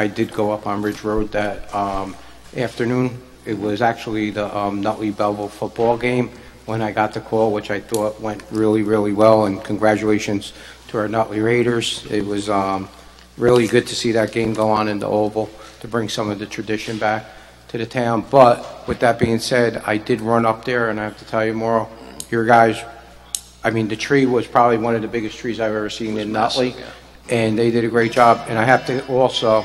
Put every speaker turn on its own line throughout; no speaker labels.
I did go up on Ridge Road that um, afternoon. It was actually the um, Nutley-Belleville football game when I got the call, which I thought went really, really well, and congratulations to our Nutley Raiders. It was um, really good to see that game go on in the Oval, to bring some of the tradition back to the town. But with that being said, I did run up there, and I have to tell you, Mauro, your guys, I mean, the tree was probably one of the biggest trees I've ever seen in Nutley, and they did a great job. And I have to also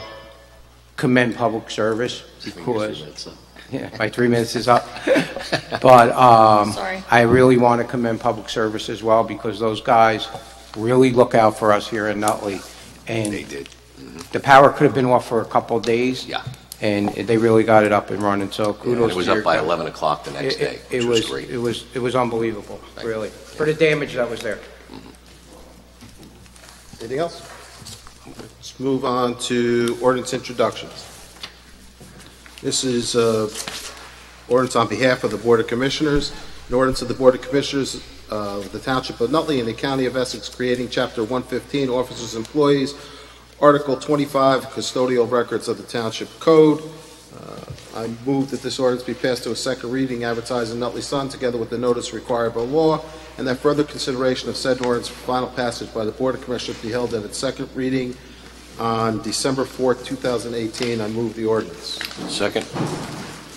commend public service because yeah, my three minutes is up. But um,
Sorry.
I really want to commend public service as well, because those guys really look out for us here in Nutley. And
They did.
the power could have been off for a couple of days.
Yeah.
And they really got it up and running, so
And
kudos
it
to
was
your
up by
company.
11 o'clock the next
It-
day,
it-
which
it
was great.
It was, it was unbelievable,
Right.
really, for the damage that was there.
Anything else? Let's move on to ordinance introductions. This is uh, ordinance on behalf of the Board of Commissioners, an ordinance of the Board of Commissioners of the Township of Nutley and the County of Essex creating Chapter 115, Officers and Employees, Article 25, Custodial Records of the Township Code. Uh, I move that this ordinance be passed to a second reading, advertised in Nutley Sun, together with the notice required by law, and that further consideration of said ordinance for final passage by the Board of Commissioners be held at its second reading on December 4th, 2018. I move the ordinance.
Second?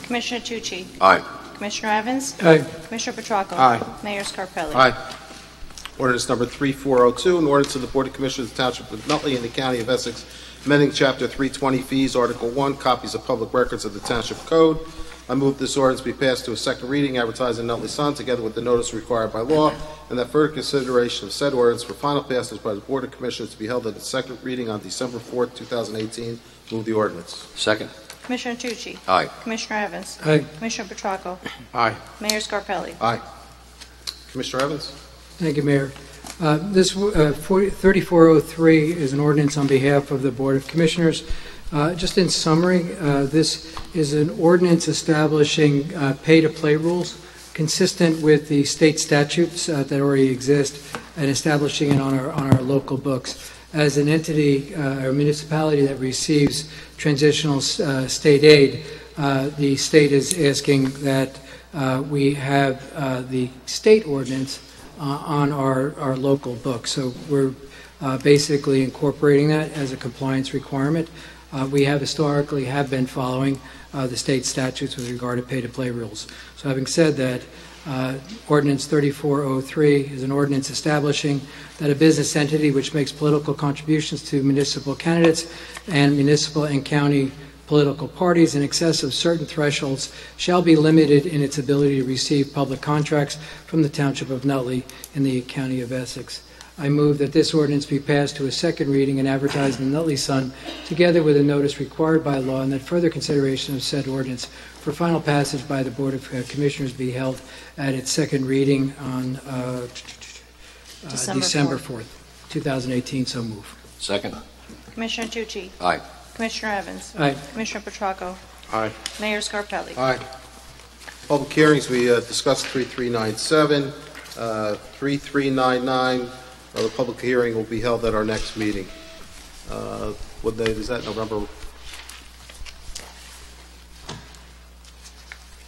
Commissioner Tucci?
Aye.
Commissioner Evans?
Aye.
Commissioner Petracco?
Aye.
Mayor Scarpelli?
Aye. Ordinance number 3402, an ordinance of the Board of Commissioners of the Township of Nutley in the County of Essex, amending Chapter 320 fees, Article 1, copies of public records of the Township Code. I move this ordinance be passed to a second reading, advertised in Nutley Sun, together with the notice required by law, and that further consideration of said ordinance for final passage by the Board of Commissioners to be held at its second reading on December 4th, 2018. Move the ordinance.
Second?
Commissioner Tucci?
Aye.
Commissioner Evans?
Aye.
Commissioner Petracco?
Aye.
Mayor Scarpelli?
Commissioner Evans?
Thank you, Mayor. Uh, This uh, 40 3403 is an ordinance on behalf of the Board of Commissioners. Uh, Just in summary, uh, this is an ordinance establishing uh, pay-to-play rules consistent with the state statutes uh, that already exist and establishing it on our, on our local books. As an entity uh, or municipality that receives transitional uh, state aid, uh, the state is asking that uh, we have uh, the state ordinance uh, on our, our local book. So we're uh, basically incorporating that as a compliance requirement. Uh, We have historically have been following uh, the state statutes with regard to pay-to-play rules. So having said that, uh, ordinance 3403 is an ordinance establishing that a business entity which makes political contributions to municipal candidates and municipal and county political parties in excess of certain thresholds shall be limited in its ability to receive public contracts from the Township of Nutley in the County of Essex. I move that this ordinance be passed to a second reading and advertised in the Nutley Sun, together with a notice required by law, and that further consideration of said ordinance for final passage by the Board of uh, Commissioners be held at its second reading on uh, uh,
December
December 4th, 2018, so move.
Second?
Commissioner Tucci?
Aye.
Commissioner Evans?
Aye.
Commissioner Petracco?
Aye.
Mayor Scarpelli?
Aye. Public hearings, we uh, discussed 3397, uh, 3399, uh, the public hearing will be held at our next meeting. Uh, What day is that, November?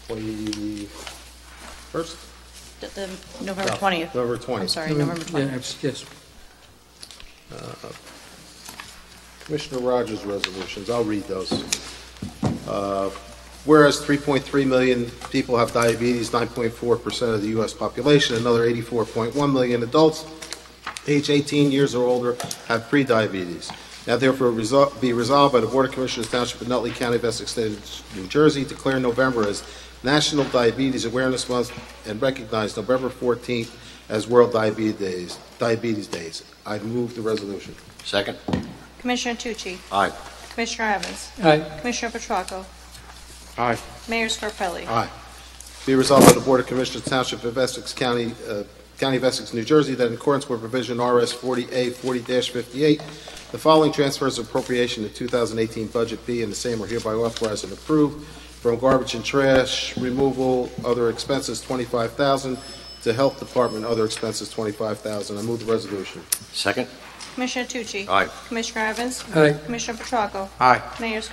21st?
The- the November
No,
20th?
November 20th.
I'm sorry, November
Yeah,
20th.
abs- Yes.
Commissioner Rogers' resolutions, I'll read those. Uh, Whereas 3.3 million people have diabetes, 9.4% of the U.S. population, another 84.1 million adults age 18 years or older have prediabetes. Now therefore resol- be resolved by the Board of Commissioners Township of Nutley County of Essex State of New Jersey, declare November as National Diabetes Awareness Month and recognize November 14th as World Diabetes Days. Diabetes Days. I move the resolution.
Second?
Commissioner Tucci?
Aye.
Commissioner Evans?
Aye.
Commissioner Petracco?
Aye.
Mayor Scarpelli?
Aye. Be resolved by the Board of Commissioners Township of Essex County, uh, County of Essex, New Jersey, that in accordance with provision RS 40A 40-58, the following transfers of appropriation to 2018 budget be and the same are hereby authorized and approved from garbage and trash removal, other expenses 25000 to Health Department, other expenses 25000 I move the resolution.
Second?
Commissioner Tucci?
Aye.
Commissioner Evans?
Aye.
Commissioner Petracco?
Aye.
Mayor Scarpelli?